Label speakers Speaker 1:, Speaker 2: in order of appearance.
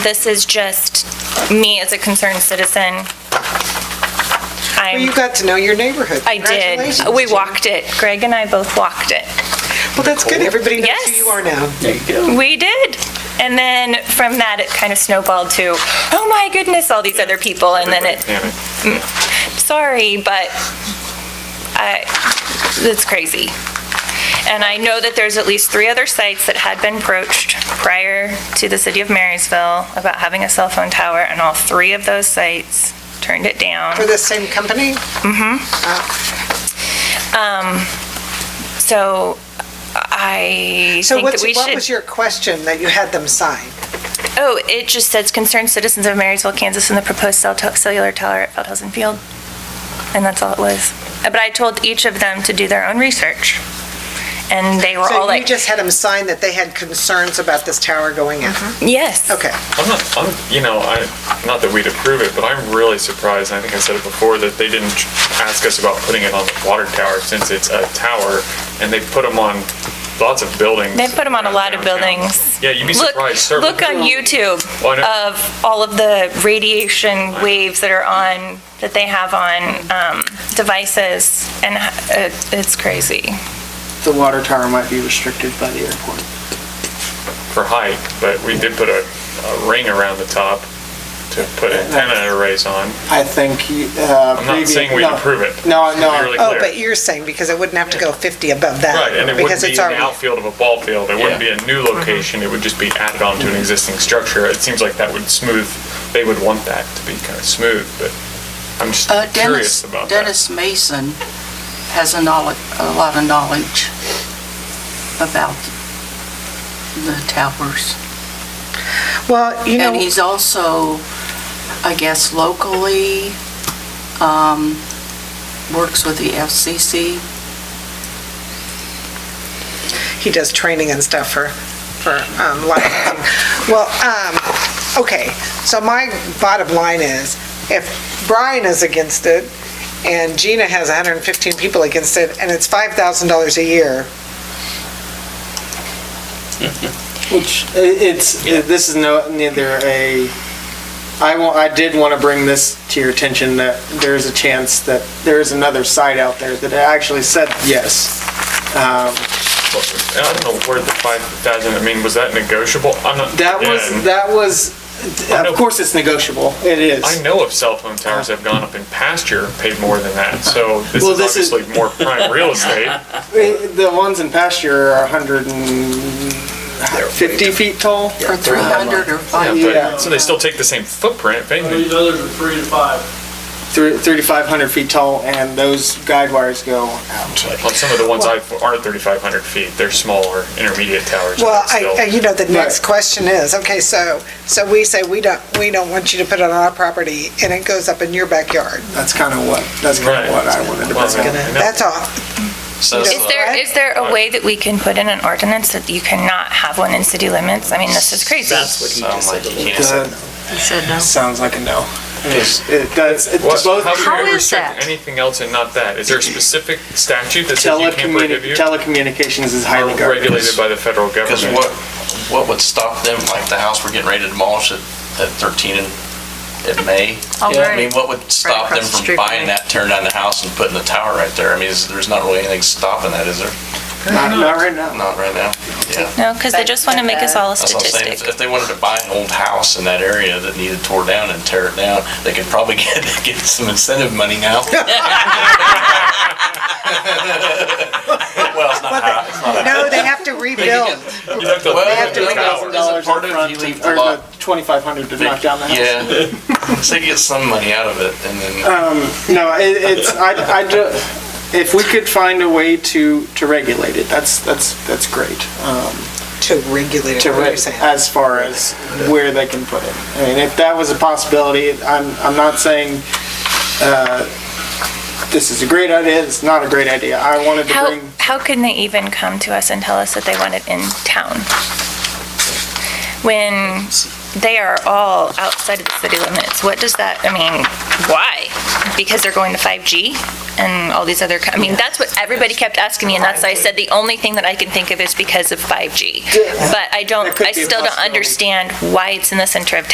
Speaker 1: This is just me as a concerned citizen.
Speaker 2: Well, you
Speaker 1: I'm,
Speaker 2: got to know your neighborhood.
Speaker 1: I did.
Speaker 2: Congratulations,
Speaker 1: We
Speaker 2: Jen.
Speaker 1: walked it. Greg and I both walked it.
Speaker 2: Well, that's good. Everybody knows who
Speaker 1: Yes.
Speaker 2: you are now.
Speaker 3: There you go.
Speaker 1: We did. And then from that, it kind of snowballed to, oh my goodness, all these other people. And then it, mm,
Speaker 3: Damn
Speaker 1: sorry, but I, it's crazy. And I know that there's at least three other sites that had been approached prior to the city of Marysville about having a cell phone tower, and all three of those sites turned it down.
Speaker 2: For the same company?
Speaker 1: So I
Speaker 2: So
Speaker 1: think
Speaker 2: what's,
Speaker 1: that we
Speaker 2: what was
Speaker 1: should,
Speaker 2: your question that you had them sign?
Speaker 1: oh, it just says concerned citizens of Marysville, Kansas, and the proposed cell to- cellular tower at Feldhausen Field. And that's all it was. Uh, But I told each of them to do their own research. And they were all
Speaker 2: So you
Speaker 1: like,
Speaker 2: just had them sign that they had concerns about this tower going in?
Speaker 1: yes.
Speaker 2: Okay.
Speaker 3: I'm not, I'm, you know, I, not that we'd approve it, but I'm really surprised, and I think I said it before, that they didn't ask us about putting it on the water tower since it's a tower, and they put them on lots of buildings.
Speaker 1: They put them on a
Speaker 3: around
Speaker 1: lot of
Speaker 3: downtown.
Speaker 1: buildings.
Speaker 3: Yeah, you'd be
Speaker 1: Look-
Speaker 3: surprised. certain-
Speaker 1: Look on YouTube
Speaker 3: Well, I know.
Speaker 1: of all of the radiation waves that are on, that they have on um, devices, and uh, it's crazy.
Speaker 4: the water tower might be restricted by the airport.
Speaker 3: For height, but we did put a, a ring around the top to put antenna arrays on.
Speaker 4: I think, uh.
Speaker 3: I'm not saying we'd
Speaker 4: no.
Speaker 3: approve it.
Speaker 4: No,
Speaker 3: To be
Speaker 4: no,
Speaker 3: really
Speaker 2: Oh,
Speaker 3: clear.
Speaker 2: but you're saying because it wouldn't have to go 50 above that?
Speaker 3: Right, and it wouldn't
Speaker 2: because
Speaker 3: be in
Speaker 2: it's
Speaker 3: the
Speaker 2: already-
Speaker 3: outfield of a ball field, it wouldn't be a new location, it would just be added on to
Speaker 2: Mm-hmm.
Speaker 3: an existing structure. It seems like that would smooth, they would want that to be kind of smooth, but I'm just
Speaker 5: Uh, Dennis,
Speaker 3: curious about that.
Speaker 5: Dennis Mason has a knowledge, a lot of knowledge about the towers.
Speaker 2: Well, you
Speaker 5: And
Speaker 2: know,
Speaker 5: he's also, I guess locally, um, works with the FCC.
Speaker 2: he does training and stuff for, for um, licensing. Well, um, okay, so my bottom line is, if Brian is against it, and Gina has 115 people against it, and it's $5,000 a year,
Speaker 4: which, i- it's, i- this is no, neither a, I wa- I did want to bring this to your attention that there is a chance that there is another site out there that actually said yes. Um,
Speaker 3: And I don't know where the five thousand, I mean, was that negotiable? I'm not.
Speaker 4: That was,
Speaker 3: again,
Speaker 4: that was,
Speaker 3: I know-
Speaker 4: of course it's negotiable, it is.
Speaker 3: I know of cell phone towers that have gone up in pasture and paid more than that, so this
Speaker 4: Well,
Speaker 3: is
Speaker 4: this is-
Speaker 3: obviously more prime real estate.
Speaker 4: Eh, The ones in pasture are 150 feet tall.
Speaker 5: For 300 or
Speaker 3: Yeah,
Speaker 5: 500.
Speaker 4: Yeah.
Speaker 3: but, so they still take the same footprint, if
Speaker 6: Now,
Speaker 3: anything.
Speaker 6: These others are three to five.
Speaker 4: Three- 3,500 feet tall, and those guide wires go out.
Speaker 3: Well, some of the ones I, aren't thirty-five hundred feet, they're smaller, intermediate towers. but
Speaker 2: Well,
Speaker 3: still.
Speaker 2: I, I- you know, the next
Speaker 4: Right.
Speaker 2: question is, okay, so, so we say we don't, we don't want you to put it on our property, and it goes up in your backyard.
Speaker 4: That's kind of what, that's kind
Speaker 3: Right.
Speaker 4: of what I wanted to
Speaker 3: Well,
Speaker 4: bring up.
Speaker 3: I know.
Speaker 2: That's all.
Speaker 7: So,
Speaker 1: Is there, is there a way that we can put in an ordinance that you cannot have one in city limits? I mean, this is crazy.
Speaker 7: sound like you can't say
Speaker 4: That Sounds like a no. It's- It does, it
Speaker 3: What,
Speaker 4: both
Speaker 3: how can we
Speaker 8: is
Speaker 3: restrict
Speaker 8: that?
Speaker 3: anything else and not that? Is there a specific statute that says you can't
Speaker 4: telecommuni-
Speaker 3: prohibute?
Speaker 4: telecommunications is highly
Speaker 3: Or regulated
Speaker 4: guarded.
Speaker 3: by the federal
Speaker 7: Because
Speaker 3: government?
Speaker 7: what, what would stop them, like the house we're getting ready to demolish at, at 13 in, in May?
Speaker 1: Oh,
Speaker 7: I mean, what would stop them
Speaker 8: across the
Speaker 7: from
Speaker 8: street
Speaker 7: buying
Speaker 8: from me.
Speaker 7: that, tearing down the house and putting the tower right there? I mean, is- there's not really anything stopping that, is there?
Speaker 4: Not not right now.
Speaker 7: Not right now. Yeah.
Speaker 1: No, because they just want to make us all a
Speaker 7: That's what I'm saying.
Speaker 1: statistic.
Speaker 7: If- If they wanted to buy an old house in that area that needed tore down and tear it down, they could probably get, get some incentive money now. Well, it's not high. It's not high.
Speaker 2: No, they have to rebuild.
Speaker 3: You have to-
Speaker 7: Well,
Speaker 2: have to
Speaker 7: the
Speaker 2: leave
Speaker 7: tower.
Speaker 4: Thousand dollars
Speaker 7: Part
Speaker 4: up
Speaker 7: of
Speaker 4: front
Speaker 7: you
Speaker 4: to-
Speaker 7: leave the
Speaker 4: or
Speaker 7: lot.
Speaker 4: the 2,500 to knock down the house.
Speaker 7: Yeah, so you get some money out of it, and then
Speaker 4: No, it, it's, I, I ju- if we could find a way to, to regulate it, that's, that's, that's great. Um,
Speaker 2: To regulate it,
Speaker 4: to
Speaker 2: what you're
Speaker 4: raise
Speaker 2: saying.
Speaker 4: as far as where they can put it. I mean, if that was a possibility, I'm, I'm not saying, uh, this is a great idea, it's not a great idea. I wanted to
Speaker 1: How,
Speaker 4: bring,
Speaker 1: how can they even come to us and tell us that they want it in town? When they are all outside of the city limits, what does that, I mean, why? Because they're going to 5G and all these other, co- I mean, that's what everybody kept asking me, and that's why I said the only thing that I can think of is because of 5G. But I
Speaker 4: That
Speaker 1: don't,
Speaker 4: could
Speaker 1: I
Speaker 4: be a
Speaker 1: still don't
Speaker 4: possibility.
Speaker 1: understand why it's in the center of town.